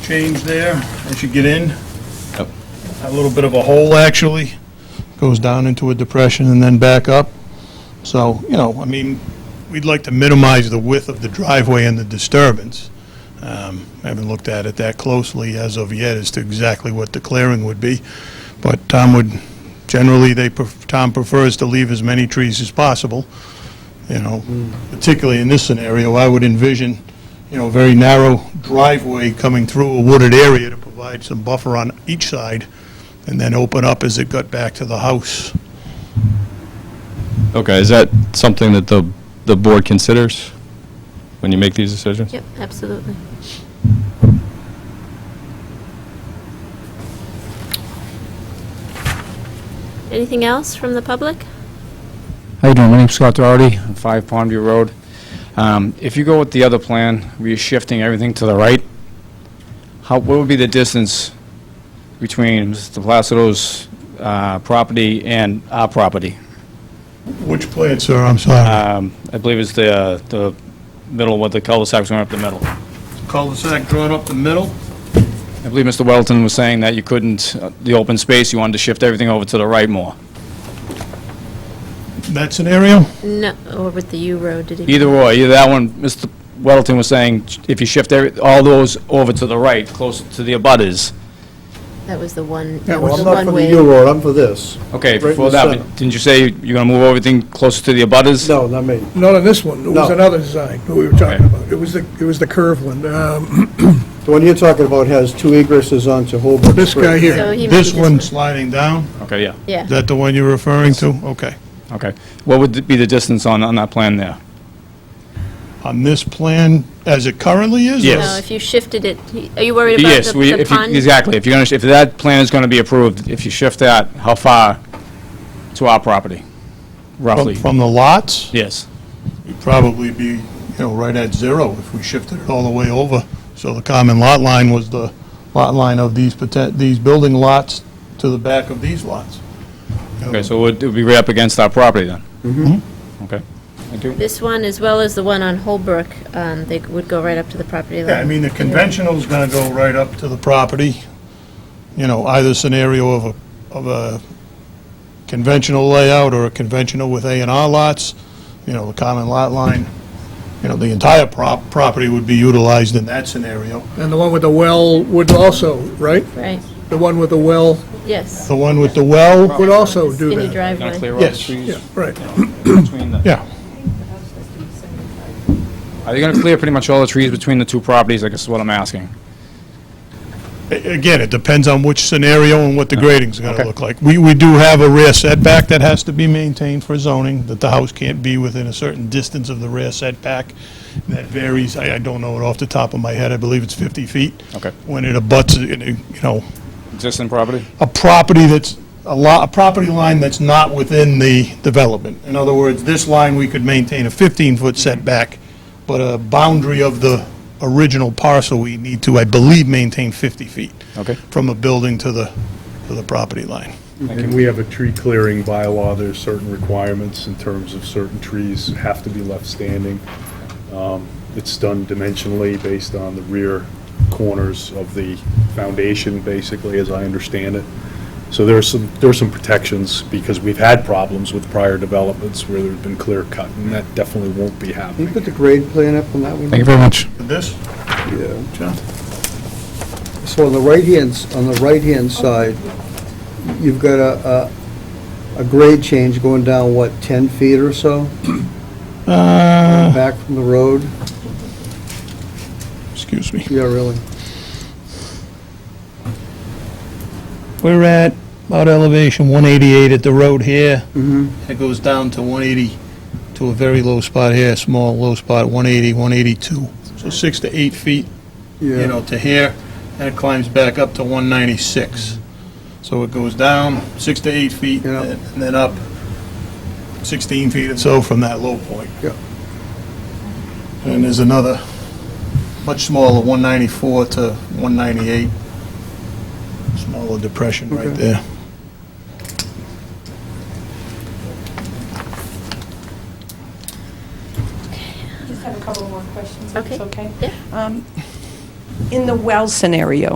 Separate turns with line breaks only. change there as you get in.
Yep.
A little bit of a hole, actually. Goes down into a depression and then back up. So, you know, I mean, we'd like to minimize the width of the driveway and the disturbance. Um, I haven't looked at it that closely as of yet as to exactly what the clearing would be. But Tom would, generally, they, pref- Tom prefers to leave as many trees as possible, you know, particularly in this scenario. I would envision, you know, a very narrow driveway coming through a wooded area to provide some buffer on each side, and then open up as it got back to the house.
Okay, is that something that the, the board considers when you make these decisions?
Yep, absolutely. Anything else from the public?
How you doing? My name's Scott Doherty, I'm 5 Pondview Road. Um, If you go with the other plan, where you're shifting everything to the right, how, what would be the distance between Mr. Placido's uh, property and our property?
Which plan, sir? I'm sorry.
Um, I believe it's the, uh, the middle, what the cul-de-sac's going up the middle. I
Cul-de-sac drawn up the middle?
believe Mr. Welton was saying that you couldn't, uh, the open space, you wanted to shift everything over to the right more.
That scenario?
No, or with the U road, did he?
Either way, either that one, Mr. Welton was saying, if you shift every, all those over to the right, closer to the abutters,
That was the one,
Yeah,
that
well,
was
I'm
the
not for the
one-way.
U road, I'm for this.
Okay,
Right in
before
the
that,
center.
but didn't you say you're gonna move everything closer to the abutters?
No, not me.
Not on this one, it was
No.
another design that we were talking
Okay.
about. It was the, it was the curved one. Um,
The one you're talking about has two egresses onto Holbrook
This guy
Street.
So
here,
he might be
This one sliding down?
Okay, yeah,
Yeah,
Is that the one you're referring to? Okay.
okay. What would be the distance on, on that plan there?
On this plan, as it currently is? or-
Yes.
no, if you shifted it, he- are you worried about
Yes,
the-
we,
the
if you-
pond?
exactly, if you're gonna, sh- if that plan is gonna be approved, if you shift that, how far to our property,
From
roughly?
from the lots?
Yes,
We'd probably be, you know, right at zero if we shifted it all the way over. So the common lot line was the lot line of these poten, these building lots to the back of these lots.
okay, so it would it would be right up against our property then? Mm-hmm. Okay, thank you.
This one, as well as the one on Holbrook, um, they would go right up to the property
Yeah, I
line.
mean, the conventional's gonna go right up to the property, you know, either scenario of a, of a conventional layout or a conventional with A and R lots, you know, the common lot line, you know, the entire prop, property would be utilized in that scenario.
and the one with the well would also, right?
Right,
The one with the well
yes.
The one with the well,
would also do
Skinny
that.
Gonna
driveway.
clear all the
Yes.
trees
Yeah, right.
between the?
yeah,
Are you gonna clear pretty much all the trees between the two properties, I guess is what I'm asking?
A- again, it depends on which scenario and what the grading's gonna
Okay.
look like. We, we do have a rear setback that has to be maintained for zoning, that the house can't be within a certain distance of the rear setback. That varies, I, I don't know it off the top of my head, I believe it's 50 feet.
Okay.
When it abuts, you know, you know,
Existing property?
a property that's, a lot, a property line that's not within the development. In other words, this line, we could maintain a 15-foot setback, but a boundary of the original parcel, we need to, I believe, maintain 50 feet
Okay.
from a building to the, to the property line.
And we have a tree clearing bylaw, there's certain requirements in terms of certain trees have to be left standing. Um, It's done dimensionally based on the rear corners of the foundation, basically, as I understand it. So there are some, there are some protections, because we've had problems with prior developments where there's been clear cut, and that definitely won't be
Can
happening.
you put the grade plan up on that one?
Thank you very much.
This,
Yeah.
John?
So on the right-hand, s- on the right-hand side, you've got a, a, a grade change going down, what, 10 feet or so?
Uh.
Back from the road?
Excuse me.
Yeah, really.
We're at about elevation 188 at the road here.
Mhm.
It goes down to 180, to a very low spot here, small low spot, 180, 182. So six to eight feet you know, to here, and it climbs back up to 196. So it goes down six to eight feet,
Yeah.
and then up 16 feet or so from that low point.
Yeah.
And there's another, much smaller, 194 to 198, smaller depression right
Okay.
there.
Just have a couple more questions, if it's
Okay.
okay?
Yeah.
Um, in the well scenario.